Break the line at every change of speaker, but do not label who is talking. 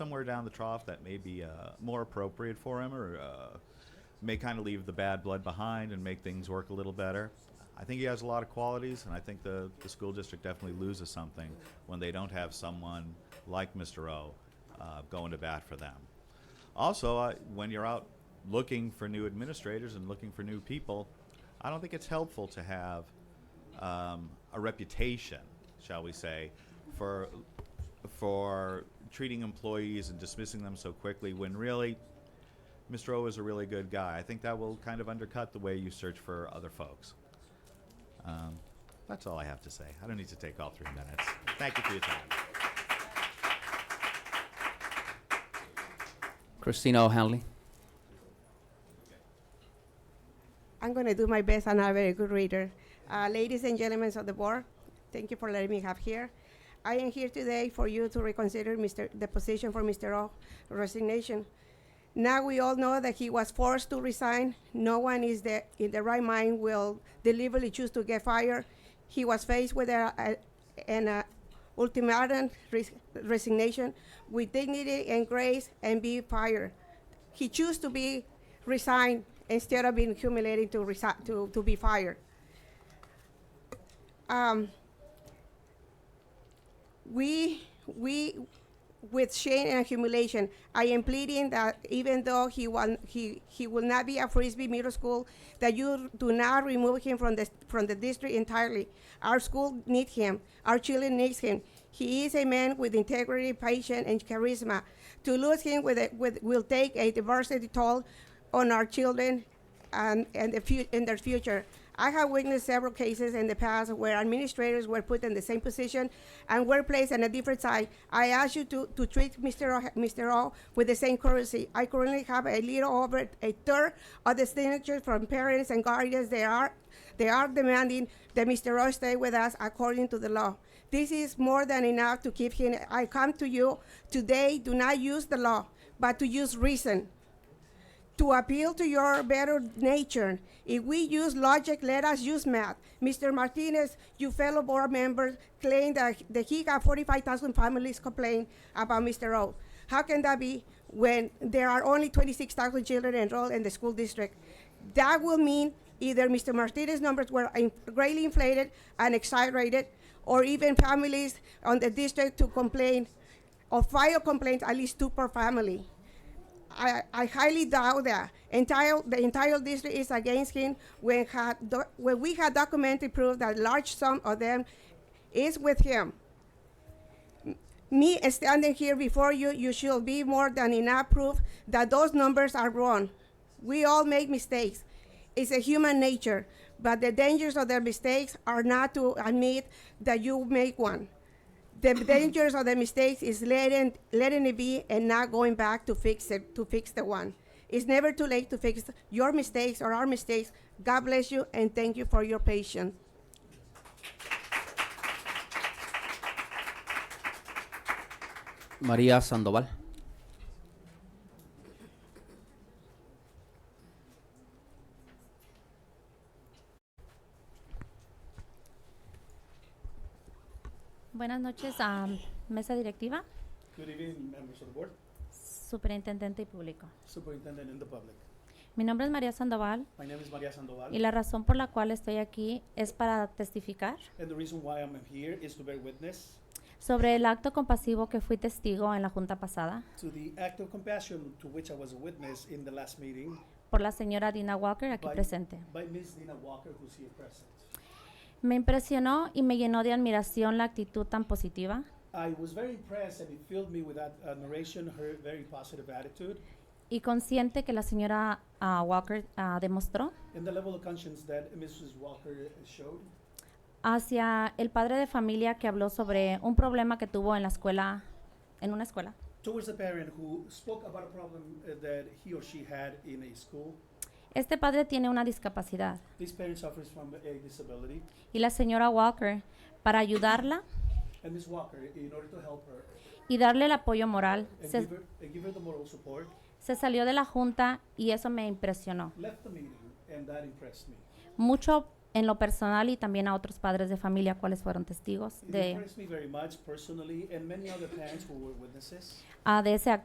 somewhere down the trough that may be uh, more appropriate for him or uh, may kind of leave the bad blood behind and make things work a little better. I think he has a lot of qualities, and I think the, the school district definitely loses something when they don't have someone like Mr. O uh, going to bat for them. Also, uh, when you're out looking for new administrators and looking for new people, I don't think it's helpful to have um, a reputation, shall we say, for for treating employees and dismissing them so quickly when really Mr. O is a really good guy. I think that will kind of undercut the way you search for other folks. Um, that's all I have to say. I don't need to take all three minutes. Thank you for your time.
Christina O'Hanley.
I'm going to do my best. I'm not a very good reader. Uh, ladies and gentlemen of the board, thank you for letting me have here. I am here today for you to reconsider Mr. the position for Mr. O resignation. Now we all know that he was forced to resign. No one is the, in the right mind will deliberately choose to get fired. He was faced with a, a, an uh, ultimatum res- resignation with dignity and grace and be fired. He chose to be resigned instead of being humiliated to, resi- to, to be fired. Um, we, we, with shame and humiliation. I am pleading that even though he will, he, he will not be at Frisbee Middle School, that you do not remove him from the, from the district entirely. Our school needs him. Our children needs him. He is a man with integrity, patience, and charisma. To lose him with, a, with will take a diversity toll on our children and, and, the fu- and their future. I have witnessed several cases in the past where administrators were put in the same position and were placed on a different side. I ask you to, to treat Mr. O, Mr. O with the same courtesy. I currently have a little over a third of the signatures from parents and guardians. They are they are demanding that Mr. O stay with us according to the law. This is more than enough to keep him. I come to you today. Do not use the law, but to use reason to appeal to your better nature. If we use logic, let us use math. Mr. Martinez, you fellow board members claim that, that he got 45,000 families complain about Mr. O. How can that be when there are only 26,000 children enrolled in the school district? That will mean either Mr. Martinez's numbers were in- greatly inflated and exaggerated, or even families on the district to complain or file complaints at least two per family. I, I highly doubt that entire the entire district is against him when had do, when we had documented proof that large sum of them is with him. Me standing here before you, you should be more than enough proof that those numbers are wrong. We all make mistakes. It's a human nature, but the dangers of their mistakes are not to admit that you make one the dangers of the mistakes is letting letting it be and not going back to fix it to fix the one. It's never too late to fix your mistakes or our mistakes. God bless you and thank you for your patience.
María Sandoval.
Buenas noches a mesa directiva,
Good evening, members of the board,
superintendente y público.
superintendent and the public.
Mi nombre es María Sandoval
My name is Maria Sandoval,
y la razón por la cual estoy aquí es para testificar
and the reason why I'm here is to bear witness
sobre el acto compasivo que fui testigo en la junta pasada
to the act of compassion to which I was a witness in the last meeting
por la señora Dina Walker aquí
by,
presente.
by Ms. Dina Walker, who's here present.
Me impresionó y me llenó de admiración la actitud tan positiva
I was very impressed and it filled me with ad- admiration, her very positive attitude,
y consciente que la señora ah, Walker ah, demostró
and the level of conscience that Mrs. Walker showed
hacia el padre de familia que habló sobre un problema que tuvo en la escuela, en una escuela.
towards the parent who spoke about a problem uh, that he or she had in a school.
Este padre tiene una discapacidad
This parent suffers from a disability,
y la señora Walker para ayudarla
and Ms. Walker, in order to help her,
y darle el apoyo moral.
and
Se,
give, her, and give her the moral support,
se salió de la junta y eso me impresionó.
left the meeting, and that impressed me.
Mucho en lo personal y también a otros padres de familia cuáles fueron testigos
It
de,
impressed me very much personally, and many other parents who were witnesses.
ah, de ese acto